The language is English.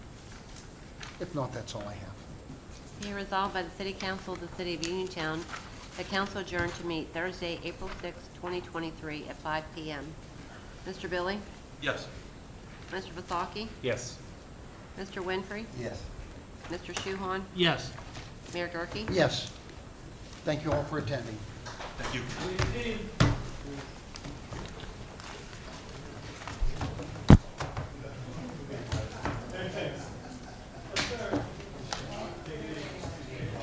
If not, that's all I have. Be resolved by the City Council of the City of Uniontown, the council adjourned to meet Thursday, April 6, 2023, at 5 p.m. Mr. Billy? Yes. Mr. Vasaki? Yes. Mr. Winfrey? Yes. Mr. Shuhon? Yes. Mayor Gurke? Yes. Thank you all for attending. Thank you.